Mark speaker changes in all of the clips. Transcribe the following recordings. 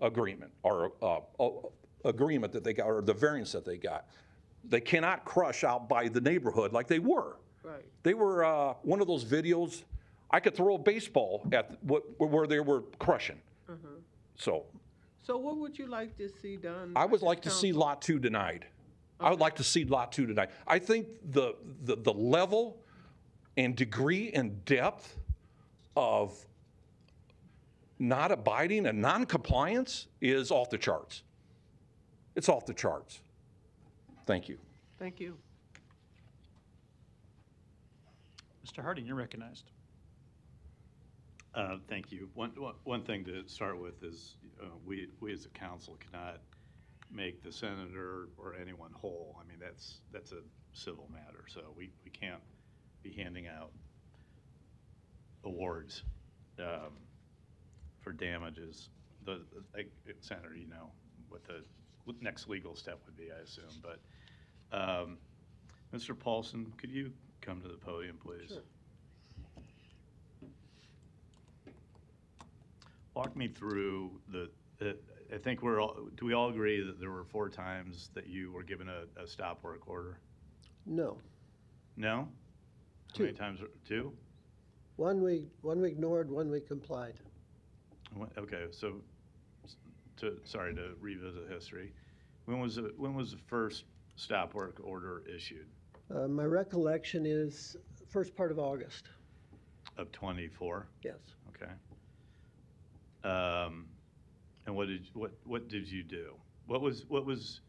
Speaker 1: agreement or uh, uh, agreement that they got or the variance that they got. They cannot crush out by the neighborhood like they were.
Speaker 2: Right.
Speaker 1: They were uh, one of those videos. I could throw a baseball at what where they were crushing. So
Speaker 2: So what would you like to see done?
Speaker 1: I
Speaker 2: by
Speaker 1: would
Speaker 2: this
Speaker 1: like to see
Speaker 2: council?
Speaker 1: Lot Two denied. I would like to see Lot Two denied. I think the, the, the level and degree and depth of not abiding and noncompliance is off the charts. It's off the charts. Thank you.
Speaker 2: Thank you.
Speaker 3: Mr. Harding, you're recognized.
Speaker 4: Uh, Thank you. One, one- one thing to start with is, uh, we, we as a council cannot make the senator or anyone whole. I mean, that's, that's a civil matter, so we, we can't be handing out awards um, for damages. The, like, Senator, you know what the next legal step would be, I assume, but, um, Mr. Paulson, could you come to the podium, please? Walk me through the, the- I think we're all, do we all agree that there were four times that you were given a, a stop work order?
Speaker 5: No.
Speaker 4: No? How many
Speaker 5: Two.
Speaker 4: times, were- two?
Speaker 5: One we, one we ignored, one we complied.
Speaker 4: Wh- Okay, so, s- to, sorry to revisit history. When was, the- when was the first stop work order issued?
Speaker 5: Uh, My recollection is first part of August,
Speaker 4: Of 24?
Speaker 5: yes.
Speaker 4: Okay. Um, and what did, what, what did you do? What was, what was,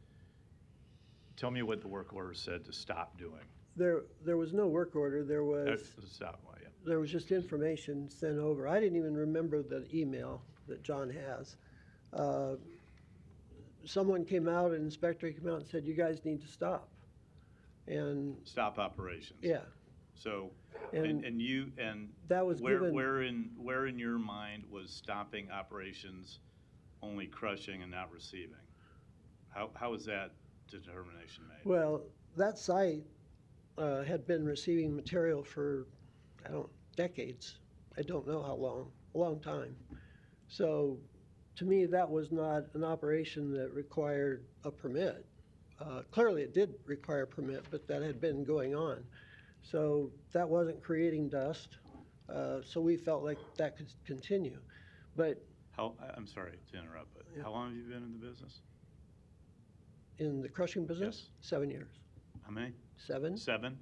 Speaker 4: tell me what the work order said to stop doing.
Speaker 5: There, there was no work order, there
Speaker 4: Uh,
Speaker 5: was,
Speaker 4: Stop, well, yeah.
Speaker 5: there was just information sent over. I didn't even remember the email that John has. Uh, Someone came out, an inspector came out and said, you guys need to stop. And,
Speaker 4: Stop operations.
Speaker 5: yeah,
Speaker 4: So, and,
Speaker 5: and
Speaker 4: and you, and
Speaker 5: that was
Speaker 4: where,
Speaker 5: given-
Speaker 4: where in, where in your mind was stopping operations only crushing and not receiving? How, how was that determination made?
Speaker 5: Well, that site uh, had been receiving material for, I don't, decades. I don't know how long, a long time. So to me, that was not an operation that required a permit. Uh, Clearly, it did require a permit, but that had been going on. So that wasn't creating dust, uh, so we felt like that could continue. But
Speaker 4: How, I- I'm sorry to interrupt, but
Speaker 5: Yeah.
Speaker 4: how long have you been in the business?
Speaker 5: in the crushing business, seven years.
Speaker 4: How many?
Speaker 5: Seven?
Speaker 4: Seven?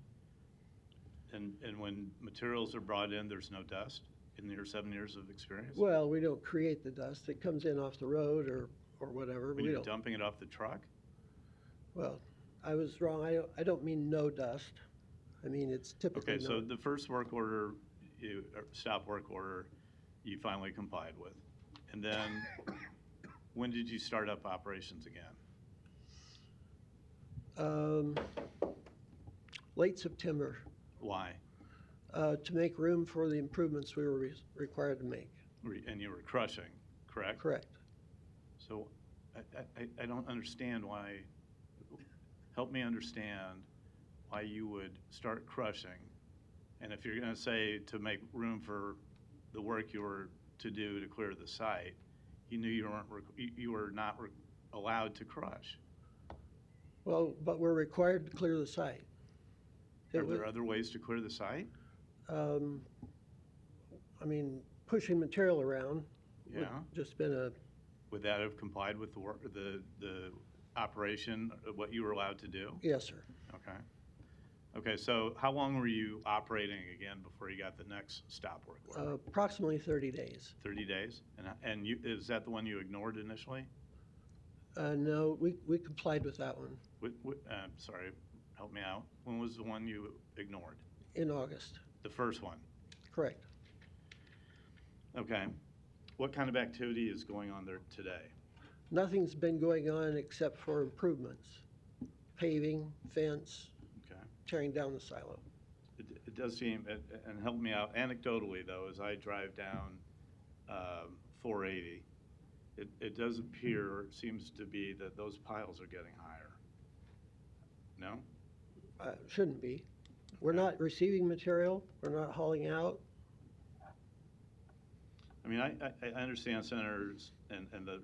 Speaker 4: And, and when materials are brought in, there's no dust in your seven years of experience?
Speaker 5: Well, we don't create the dust. It comes in off the road or, or whatever.
Speaker 4: When
Speaker 5: We
Speaker 4: you're
Speaker 5: don't,
Speaker 4: dumping it off the truck?
Speaker 5: well, I was wrong. I, don't- I don't mean no dust. I mean, it's typically
Speaker 4: Okay, so
Speaker 5: no.
Speaker 4: the first work order, you, or stop work order, you finally complied with. And then, when did you start up operations again?
Speaker 5: Um, late September,
Speaker 4: Why?
Speaker 5: uh, to make room for the improvements we were re- required to make.
Speaker 4: Re- And you were crushing, correct?
Speaker 5: Correct.
Speaker 4: So, I, I- I, I don't understand why, help me understand why you would start crushing. And if you're gonna say to make room for the work you were to do to clear the site, you knew you weren't, requ- you, you were not re- allowed to crush.
Speaker 5: Well, but we're required to clear the site. It
Speaker 4: Are
Speaker 5: was-
Speaker 4: there other ways to clear the site?
Speaker 5: um, I mean, pushing material around would
Speaker 4: Yeah.
Speaker 5: just been a,
Speaker 4: Would that have complied with the work, the, the operation, uh, what you were allowed to do?
Speaker 5: yes, sir.
Speaker 4: Okay. Okay, so how long were you operating again before you got the next stop work
Speaker 5: Uh,
Speaker 4: order?
Speaker 5: Approximately thirty days.
Speaker 4: Thirty days? And, uh, and you, is that the one you ignored initially?
Speaker 5: Uh, no, we, we complied with that one
Speaker 4: Wh- wh- uh, sorry, help me out. When was the one you ignored?
Speaker 5: in August,
Speaker 4: The first one?
Speaker 5: correct.
Speaker 4: Okay. What kind of activity is going on there today?
Speaker 5: Nothing's been going on except for improvements, paving, fence,
Speaker 4: Okay.
Speaker 5: tearing down the silo.
Speaker 4: It, it does seem, and- and help me out anecdotally though, as I drive down um, 480, it, it does appear, or it seems to be that those piles are getting higher. No?
Speaker 5: Uh, Shouldn't be. We're not receiving material, we're not hauling out.
Speaker 4: I mean, I, I- I understand senators and, and the